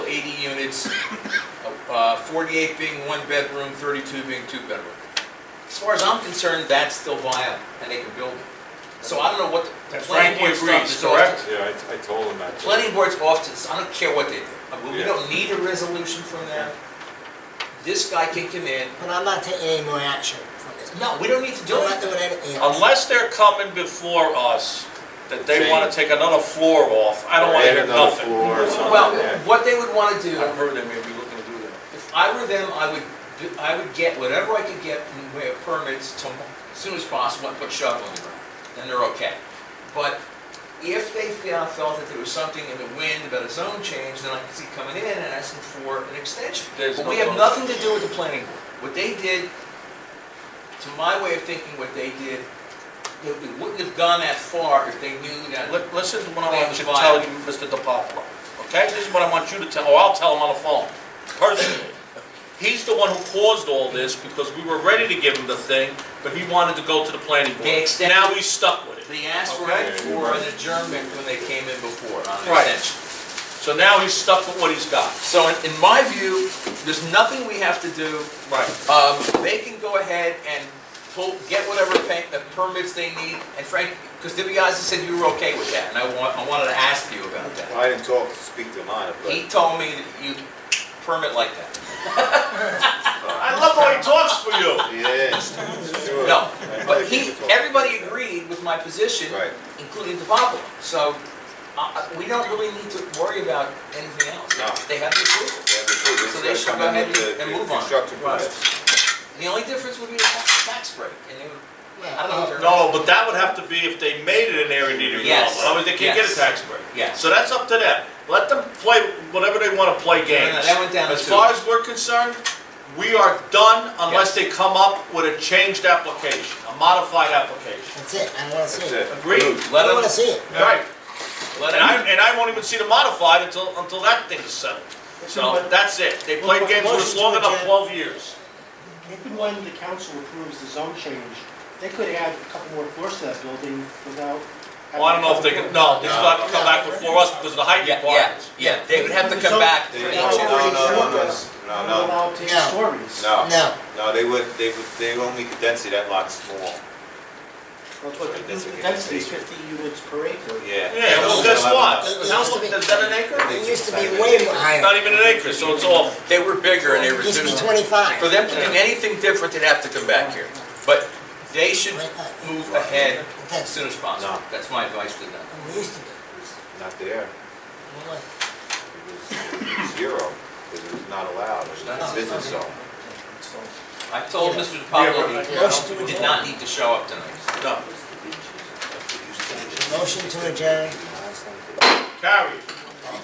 80 units, uh, 48 being one bedroom, 32 being two bedroom. As far as I'm concerned, that's still viable, and they can build it. So I don't know what the- the That's planning Frankie board stuff agrees, is off to. correct? Yeah, I, I told him that. Planning board's off to, I don't care what they do. I mean, We Yeah. don't need a resolution from them. This guy can come in. But I'm not taking any more action from this. No, we don't need to do I'm not it. doing anything. Unless they're coming before us, that they wanna take another floor off, I don't wanna Add hear another nothing. floor or something, Well, yeah. what they would want to do. I've heard they may be looking to do that. If I were them, I would, do- I would get whatever I could get in the way of permits to, as soon as possible, and put shovel in the ground, then they're okay. But if they felt, felt that there was something in the wind about a zone change, then I could see coming in and asking for an extension. There's But no we have zone nothing to do with the planning board. What they did, to my way of thinking, what they did, they they wouldn't have gone that far if they knew that. Li- Listen to what I want you to tell you, Mr. DiPaolo, okay? This is what I want you to tell, or I'll tell him on the phone, personally. He's the one who caused all this because we were ready to give him the thing, but he wanted to go to the planning board. They extended- Now he's stuck with it. They asked for Okay. for an adjournment when they came in before on an Right. extension. So now he's stuck with what he's got. So in, in my view, there's nothing we have to do. Right. Um, they can go ahead and pull, get whatever pa- the permits they need. And Frank, because DiBiase said you were okay with that, and I want, I wanted to ask you about that. I didn't talk, speak to him on it, He but told me that you permit like that. I love how he talks for you. he is. Sure. No, I but think he, we talked. everybody agreed with my position, Right. including DiPapolo. So, uh, we don't really need to worry about anything No. else. They have the approval. Yeah, but too, So it's they gotta should come go in ahead with and- the- and the move on. Construction Right. permits. The only difference would be the tax, tax break, and they would I don't know if they're- No, but that would have to be if they made it an area needing Yes. development, otherwise they can't get a Yes. tax break. Yes. So that's up to them, let them play whatever they wanna play No, no, games. that went down to As two. far as we're concerned, we are done unless they come up with a changed application, a modified application. That's it, I don't wanna see That's it. it. Agreed. Moved. I Let don't wanna them, see it. Right. let And I, them, and I won't even see the modified until, until that thing is settled. So that's it, they played games for us long enough, twelve years. Even when the council approves the zone change, they could add a couple more floors to that building without. Well, I don't know if they can, no, they still have to come back before us because of the height yeah, yeah, requirements. yeah, they would have to come back for They- each No, of Yeah. no, those. no, no, no, no, Not no, allowed to No. have stories. Oh. no. No. No, they would, they would, they would only condense it, that lot's small. That's what, Right, that's what the it density is is. fifty units per acre. Yeah. Yeah, well, guess what? It How used to much, be- is that an acre? It used to be way more higher. Not even an acre, so it's all, They were bigger and they It used to be reduced. twenty-five. For them to do anything different, they'd have to come back here. But they should Right, uh, move ahead as That's, soon as possible. No. That's my advice to them. it used to be. Not there. It was. It was- it was Zero, because it was not allowed, it was a not- business zone. I told Yeah. Mr. DiPaolo, Yeah, but- Motion to he did adjourn. not need to show up tonight. no, Motion to adjourn. carry.